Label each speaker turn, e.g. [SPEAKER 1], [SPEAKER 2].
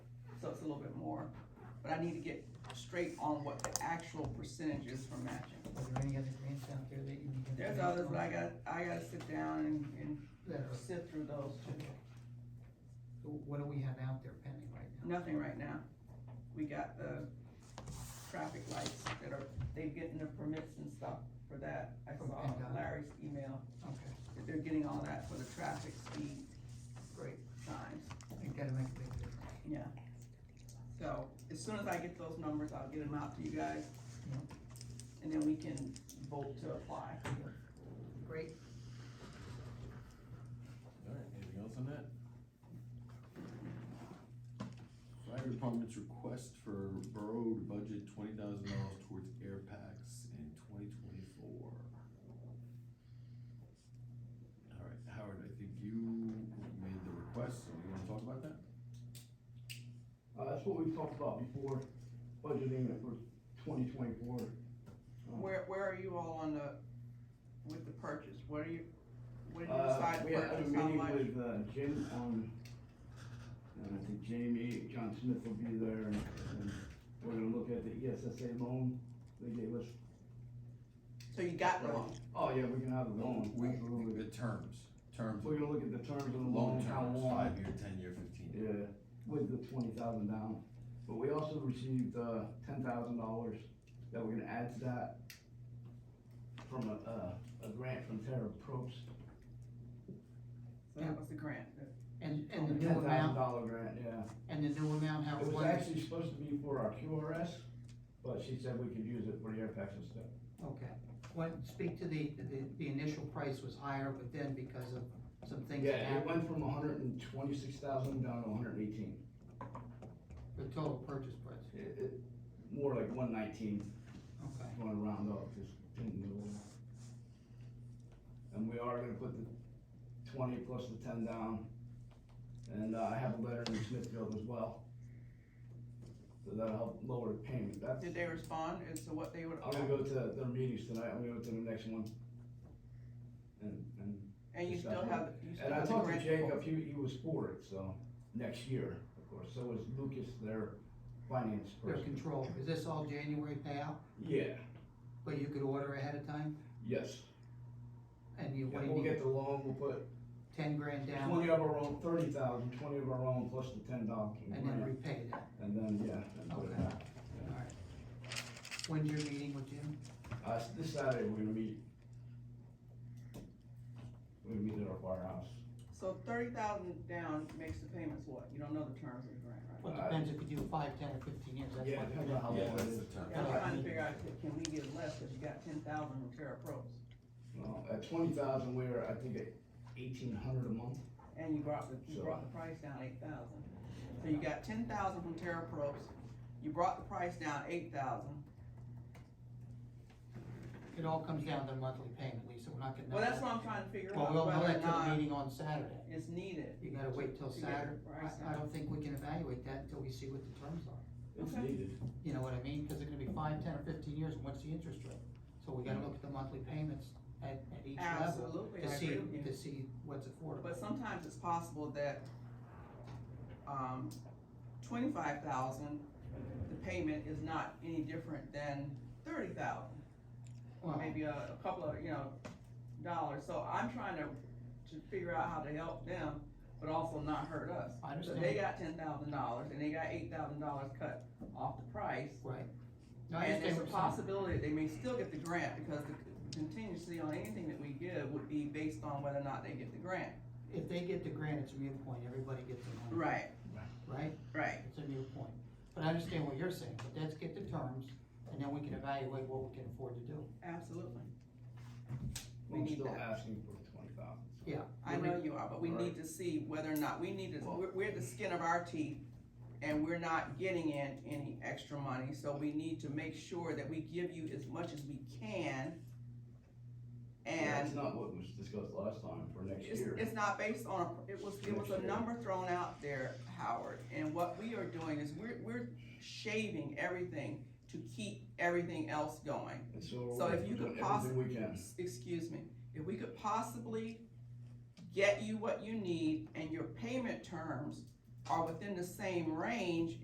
[SPEAKER 1] so it's a little bit more. But I need to get straight on what the actual percentage is for matching.
[SPEAKER 2] Are there any other grants out there that you need? to-
[SPEAKER 1] There's others, but I gotta, I gotta sit down and, and
[SPEAKER 2] That are-
[SPEAKER 1] sit through those too.
[SPEAKER 2] so What do we have out there pending right now?
[SPEAKER 1] Nothing right now. We got the traffic lights that are, they getting the permits and stuff for that. I
[SPEAKER 2] From
[SPEAKER 1] saw
[SPEAKER 2] PennDOT.
[SPEAKER 1] Larry's email,
[SPEAKER 2] Okay,
[SPEAKER 1] that they're getting all that for the traffic speed
[SPEAKER 2] great,
[SPEAKER 1] signs,
[SPEAKER 2] it's gotta make a big difference.
[SPEAKER 1] yeah. So, as soon as I get those numbers, I'll get them out to you guys.
[SPEAKER 2] Yeah.
[SPEAKER 1] And then we can vote to apply.
[SPEAKER 2] Great,
[SPEAKER 3] Alright, anything else on that? Fire department's request for borough to budget twenty thousand dollars towards air packs in twenty twenty-four. Alright, Howard, I think you made the request, so you wanna talk about that?
[SPEAKER 4] Uh, that's what we talked about before, budgeting it for twenty twenty-four. Um, Mm.
[SPEAKER 1] Where, where are you all on the, with the purchase? What are you, what did you
[SPEAKER 4] Uh,
[SPEAKER 1] decide
[SPEAKER 4] we had a
[SPEAKER 1] purchase, how
[SPEAKER 4] meeting
[SPEAKER 1] much?
[SPEAKER 4] with, uh, Jim on, and I think Jamie, John Smith will be there, and, and we're gonna look at the E ESSA loan they gave us.
[SPEAKER 1] So you got the
[SPEAKER 4] Right.
[SPEAKER 1] loan?
[SPEAKER 4] Oh, yeah, we can have the loan,
[SPEAKER 3] We,
[SPEAKER 4] absolutely.
[SPEAKER 3] the terms, terms,
[SPEAKER 4] We're gonna look at the terms of the
[SPEAKER 3] long
[SPEAKER 4] loan, how
[SPEAKER 3] terms,
[SPEAKER 4] long.
[SPEAKER 3] five year, ten year, fifteen year.
[SPEAKER 4] Yeah, with the twenty thousand down, but we also received, uh, ten thousand dollars that we're gonna add to that from a, uh, a grant from Terra Probst,
[SPEAKER 1] So that was the grant.
[SPEAKER 2] and,
[SPEAKER 4] a
[SPEAKER 2] and the
[SPEAKER 4] ten
[SPEAKER 2] new
[SPEAKER 4] thousand
[SPEAKER 2] amount,
[SPEAKER 4] dollar grant, yeah.
[SPEAKER 2] and the new amount, how
[SPEAKER 4] Oh, It was
[SPEAKER 2] what is-
[SPEAKER 4] actually supposed to be for our QRS, but she said we could use it for the air packs and stuff.
[SPEAKER 2] Okay, when, speak to the, the, the initial price was higher, but then because of some things that
[SPEAKER 4] Yeah, it
[SPEAKER 2] happened,
[SPEAKER 4] went from hundred and twenty-six thousand down to hundred and eighteen,
[SPEAKER 2] the total purchase price,
[SPEAKER 4] it, it, more like one nineteen.
[SPEAKER 2] okay.
[SPEAKER 4] I'm gonna round up, just pin the little. And we are gonna put the twenty plus the ten down, and uh, I have a letter from Smithfield as well. So that'll help lower the payment, that's,
[SPEAKER 1] Did they respond as to what they would?
[SPEAKER 4] I'm gonna go to their meetings tonight, I'm gonna go to the next one. And, and,
[SPEAKER 1] And you still have, you still
[SPEAKER 4] and I
[SPEAKER 1] have the
[SPEAKER 4] talked to
[SPEAKER 1] grant.
[SPEAKER 4] Jacob, he, he was for it, so, next year, of course, so is Lucas, their finance
[SPEAKER 2] Their
[SPEAKER 4] person.
[SPEAKER 2] control, is this all January payout,
[SPEAKER 4] Yeah,
[SPEAKER 2] but you could order ahead of time,
[SPEAKER 4] yes,
[SPEAKER 2] and you, what do
[SPEAKER 4] and
[SPEAKER 2] you
[SPEAKER 4] we'll
[SPEAKER 2] need,
[SPEAKER 4] get the loan, we'll put
[SPEAKER 2] ten grand down,
[SPEAKER 4] Twenty of our own, thirty thousand, twenty of our own, plus the ten dollars.
[SPEAKER 2] and then repay that,
[SPEAKER 4] And then, yeah. and put it
[SPEAKER 2] Okay.
[SPEAKER 4] back.
[SPEAKER 2] alright. When's your meeting with Jim?
[SPEAKER 4] Uh, s- this Saturday, we're gonna meet. We're gonna meet at our firehouse.
[SPEAKER 1] So thirty thousand down makes the payments what? You don't know the terms of the grant, right?
[SPEAKER 2] Well, it depends if you do five, ten, or fifteen years, that's
[SPEAKER 4] Yeah,
[SPEAKER 2] what.
[SPEAKER 4] it depends on how long
[SPEAKER 3] Yeah,
[SPEAKER 4] it
[SPEAKER 3] that's
[SPEAKER 4] is.
[SPEAKER 3] the term.
[SPEAKER 1] I'm
[SPEAKER 2] Yeah.
[SPEAKER 1] trying to figure out, if- can we get less, cause you got ten thousand from Terra Pros,
[SPEAKER 4] Well, At twenty thousand, we're, I think, at eighteen hundred a month.
[SPEAKER 1] and you brought the, you
[SPEAKER 4] So-
[SPEAKER 1] brought the price down eight thousand. So you got ten thousand from Terra Pros, you brought the price down eight thousand.
[SPEAKER 2] It all comes down to monthly payment, Lisa, we're not getting.
[SPEAKER 1] Well, that's what I'm trying to figure
[SPEAKER 2] Well,
[SPEAKER 1] out,
[SPEAKER 2] we'll know
[SPEAKER 1] whether or
[SPEAKER 2] that till the
[SPEAKER 1] not
[SPEAKER 2] meeting on Saturday,
[SPEAKER 1] it's needed.
[SPEAKER 2] you gotta wait till
[SPEAKER 1] to get the
[SPEAKER 2] Saturday,
[SPEAKER 1] price
[SPEAKER 2] I, I
[SPEAKER 1] down.
[SPEAKER 2] don't think we can evaluate that until we see what the terms are,
[SPEAKER 4] It's
[SPEAKER 1] Okay.
[SPEAKER 4] needed.
[SPEAKER 2] you know what I mean, cause it's gonna be five, ten, or fifteen years, and what's the interest rate? So we gotta look at the monthly payments at, at each level,
[SPEAKER 1] Absolutely,
[SPEAKER 2] to
[SPEAKER 1] I
[SPEAKER 2] see,
[SPEAKER 1] agree with you.
[SPEAKER 2] to see what's affordable.
[SPEAKER 1] But sometimes it's possible that, um, twenty-five thousand, the payment is not any different than thirty thousand.
[SPEAKER 2] Well,
[SPEAKER 1] Maybe a, a couple of, you know, dollars, so I'm trying to, to figure out how to help them, but also not hurt us.
[SPEAKER 2] I
[SPEAKER 1] So they
[SPEAKER 2] understand,
[SPEAKER 1] got ten thousand dollars, and they got eight thousand dollars cut off the price.
[SPEAKER 2] right. No, I
[SPEAKER 1] And there's
[SPEAKER 2] understand
[SPEAKER 1] a
[SPEAKER 2] what you're saying.
[SPEAKER 1] possibility that they may still get the grant, because the contingency on anything that we give would be based on whether or not they get the grant.
[SPEAKER 2] If they get the grant, it's a moot point, everybody gets the money,
[SPEAKER 1] Right,
[SPEAKER 2] right?
[SPEAKER 1] right.
[SPEAKER 2] It's a new point, but I understand what you're saying, but let's get the terms, and then we can evaluate what we can afford to do.
[SPEAKER 1] Absolutely. We
[SPEAKER 4] I'm
[SPEAKER 1] need
[SPEAKER 4] still
[SPEAKER 1] that.
[SPEAKER 4] asking for twenty thousand.
[SPEAKER 2] Yeah.
[SPEAKER 1] I know you are, but we need
[SPEAKER 4] Right.
[SPEAKER 1] to see whether or not, we need to, we're, we're the skin of our teeth, and we're not getting in any extra money, so we need to make sure that we give you as much as we can.
[SPEAKER 4] It's
[SPEAKER 1] And
[SPEAKER 4] not what was discussed last time for next
[SPEAKER 1] it's,
[SPEAKER 4] year.
[SPEAKER 1] it's not based on, a- it was, it was a
[SPEAKER 4] Next year.
[SPEAKER 1] number thrown out there, Howard, and what we are doing is we're, we're shaving everything to keep everything else going.
[SPEAKER 4] And so
[SPEAKER 1] so
[SPEAKER 4] we're
[SPEAKER 1] if you could
[SPEAKER 4] doing
[SPEAKER 1] possi-
[SPEAKER 4] everything we can.
[SPEAKER 1] excuse me, if we could possibly get you what you need and your payment terms are within the same range